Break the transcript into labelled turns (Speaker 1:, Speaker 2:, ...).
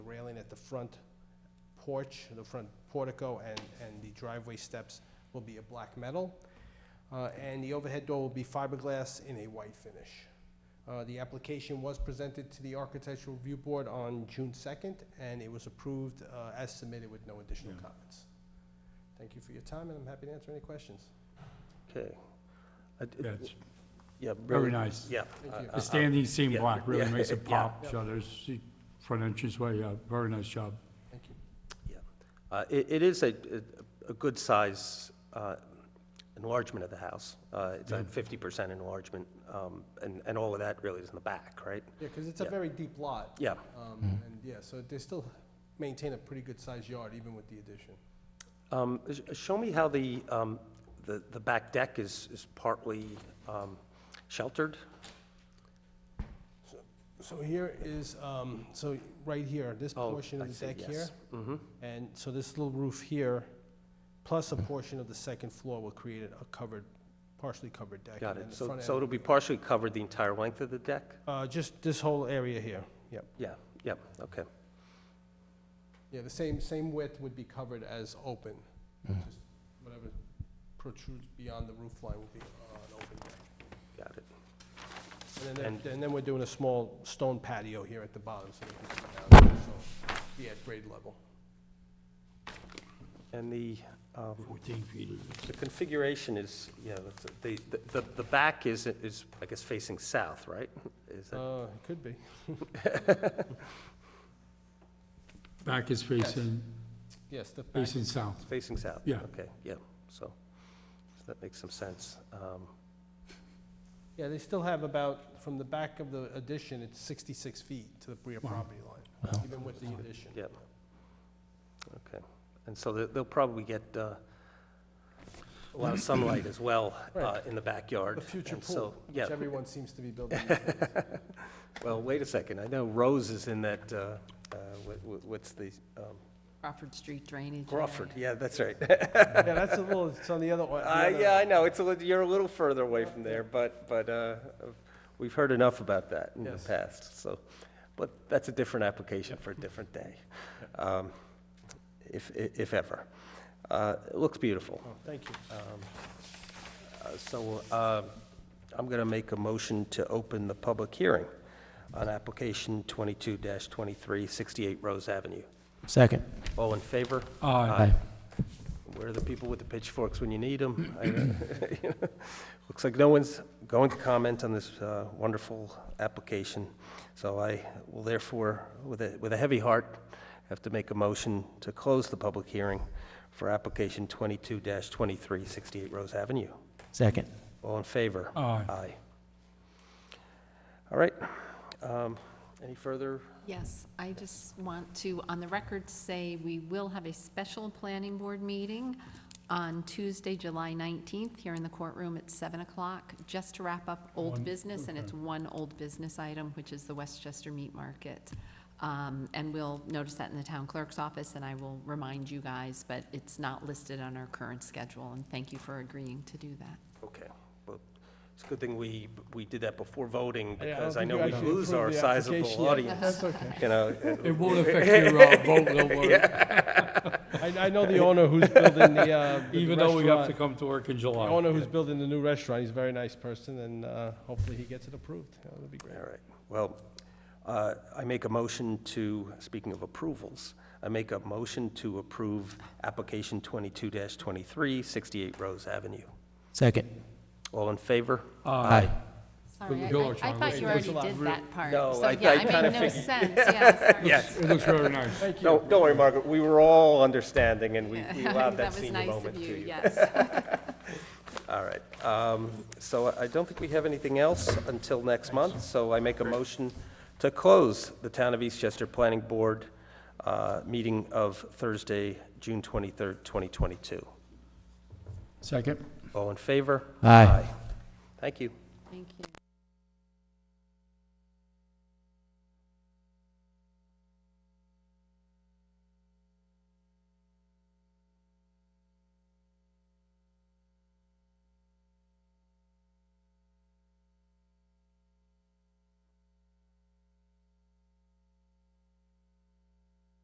Speaker 1: the front porch, the front portico, and, and the driveway steps will be a black metal. Uh, And the overhead door will be fiberglass in a white finish. Uh, The application was presented to the Architectural Review Board on June 2nd, and it was approved uh, as submitted with no additional
Speaker 2: Yeah.
Speaker 1: comments. Thank you for your time, and I'm happy to answer any questions.
Speaker 3: Okay. I- it-
Speaker 2: Yeah, it's
Speaker 3: Yeah.
Speaker 2: very nice.
Speaker 3: Yeah. uh,
Speaker 1: Thank
Speaker 3: I-
Speaker 1: you.
Speaker 3: I- I-
Speaker 2: The standing seam
Speaker 3: yeah,
Speaker 2: block really
Speaker 3: yeah,
Speaker 2: makes it
Speaker 3: yeah.
Speaker 2: pop, shutters, the front entranceway, yeah, very nice job.
Speaker 1: Thank you.
Speaker 3: yeah. Uh, It it is a, a- a good size uh, enlargement of the house. Uh, It's a
Speaker 2: Yeah.
Speaker 3: 50% enlargement, um, and, and all of that really is in the back, right?
Speaker 1: Yeah, because it's a
Speaker 3: Yeah.
Speaker 1: very deep lot.
Speaker 3: Yeah.
Speaker 1: Um, And yeah, so they still maintain a pretty good-sized yard even with the addition.
Speaker 3: Um, sh- Show me how the, um, the the back deck is, is partly um, sheltered?
Speaker 1: So here is, um, so right here, this
Speaker 3: Oh,
Speaker 1: portion
Speaker 3: I
Speaker 1: of the
Speaker 3: see,
Speaker 1: deck here.
Speaker 3: yes. Mhm.
Speaker 1: And so this little roof here, plus a portion of the second floor will create a covered, partially covered deck.
Speaker 3: Got
Speaker 1: and then
Speaker 3: it.
Speaker 1: the
Speaker 3: So,
Speaker 1: front
Speaker 3: so
Speaker 1: end-
Speaker 3: it'll be partially covered the entire length of the deck?
Speaker 1: Uh, just this whole area here, yep.
Speaker 3: Yeah, yeah, okay.
Speaker 1: Yeah, the same, same width would be covered as open. Just Whatever protrudes beyond the roof line would be uh, an open deck.
Speaker 3: Got it.
Speaker 1: And then,
Speaker 3: And-
Speaker 1: there- and then we're doing a small stone patio here at the bottom, so they can sit down, so be at grade level.
Speaker 3: And the, um,
Speaker 2: 14 feet is
Speaker 3: the configuration is, yeah, that's, the, the- the, the back is, is, I guess, facing south, right? Is that,
Speaker 1: Uh, it could be.
Speaker 2: Back is facing,
Speaker 1: Yes, the back.
Speaker 2: facing south.
Speaker 3: facing south?
Speaker 2: Yeah.
Speaker 3: Okay, yeah, so, so that makes some sense. Um,
Speaker 1: Yeah, they still have about, from the back of the addition, it's 66 feet to the rear
Speaker 2: Wow.
Speaker 1: property line, even with the addition.
Speaker 3: Yeah. And so they- they'll probably get uh, a lot of sunlight as well uh,
Speaker 1: Right.
Speaker 3: in the backyard.
Speaker 1: The future
Speaker 3: and so-
Speaker 1: pool,
Speaker 3: Yeah,
Speaker 1: which everyone seems to be building. these days.
Speaker 3: well, wait a second, I know Rose is in that, uh, uh, what- what- what's the, um,
Speaker 4: Crawford Street drainage.
Speaker 3: Crawford, yeah, that's right.
Speaker 1: Yeah, that's a little, it's on the other one. the
Speaker 3: Uh,
Speaker 1: other-
Speaker 3: yeah, I know, it's a, lit- you're a little further away from there, but, but, uh, we've heard enough about that in the
Speaker 1: Yes.
Speaker 3: past, so. But that's a different application for a different day, um, if, i- if ever. Uh, it looks beautiful.
Speaker 1: Oh, Thank you.
Speaker 3: Uh, So, uh, I'm gonna make a motion to open the public hearing on application twenty-two twenty-three, sixty-eight Rose Avenue.
Speaker 5: Second.
Speaker 3: All in favor?
Speaker 1: Uh,
Speaker 2: Aye.
Speaker 3: Where are the people with the pitchforks when you need them? Looks like no one's going to comment on this uh, wonderful application, so I will therefore, with a, with a heavy heart, have to make a motion to close the public hearing for application 22-23, 68 Rose Avenue.
Speaker 5: Second.
Speaker 3: All in favor?
Speaker 1: uh,
Speaker 2: Aye.
Speaker 3: Aye. All right. Um, Any further?
Speaker 4: Yes, I just want to, on the record, say we will have a special planning board meeting on Tuesday, July 19th, here in the courtroom at 7 o'clock, just to wrap up old business, and it's one old business item, which is the Westchester Meat Market. Um, And we'll notice that in the town clerk's office, and I will remind you guys, but it's not listed on our current schedule, and thank you for agreeing to do that.
Speaker 3: Okay, well, it's a good thing we, we did that before
Speaker 1: Yeah, I
Speaker 3: voting,
Speaker 1: don't
Speaker 3: because I
Speaker 1: think
Speaker 3: know
Speaker 1: you
Speaker 3: we
Speaker 1: actually
Speaker 3: lose our
Speaker 1: approved the application
Speaker 3: sizable
Speaker 1: yet.
Speaker 3: audience,
Speaker 1: That's okay.
Speaker 3: you know.
Speaker 2: It won't affect your uh, vote, don't worry,
Speaker 1: I, I know the owner who's building the, uh, the
Speaker 2: even though we have to
Speaker 1: restaurant.
Speaker 2: come to work in
Speaker 1: The
Speaker 2: July.
Speaker 1: owner who's building the new restaurant, he's a very nice person, and, uh, hopefully he gets it approved. That would be great.
Speaker 3: All right, well, uh, I make a motion to, speaking of approvals, I make a motion to approve application twenty-two 23 68 Rose Avenue.
Speaker 5: Second.
Speaker 3: All in favor?
Speaker 2: Aye.
Speaker 4: Sorry, I-
Speaker 2: Go,
Speaker 4: I I
Speaker 2: Charlie.
Speaker 4: thought you
Speaker 1: It was
Speaker 4: already
Speaker 1: a lot.
Speaker 4: did that part.
Speaker 3: No,
Speaker 4: So,
Speaker 3: I-
Speaker 4: yeah,
Speaker 3: I
Speaker 4: it
Speaker 3: kinda
Speaker 4: made no
Speaker 3: figured-
Speaker 4: sense, yeah, sorry.
Speaker 3: Yes,
Speaker 2: It looks very nice.
Speaker 1: Thank you.
Speaker 3: don't, don't worry, Margaret, we were all understanding, and we we allowed that
Speaker 4: was
Speaker 3: senior
Speaker 4: nice of
Speaker 3: moment to you.
Speaker 4: Yes.
Speaker 3: All right, um, so I don't think we have anything else until next month, so I make a motion to close the Town of Eastchester Planning Board uh, meeting of Thursday, June 23rd, 2022.
Speaker 2: Second?
Speaker 3: All in favor?
Speaker 5: Aye.
Speaker 3: Thank you.
Speaker 4: Thank you.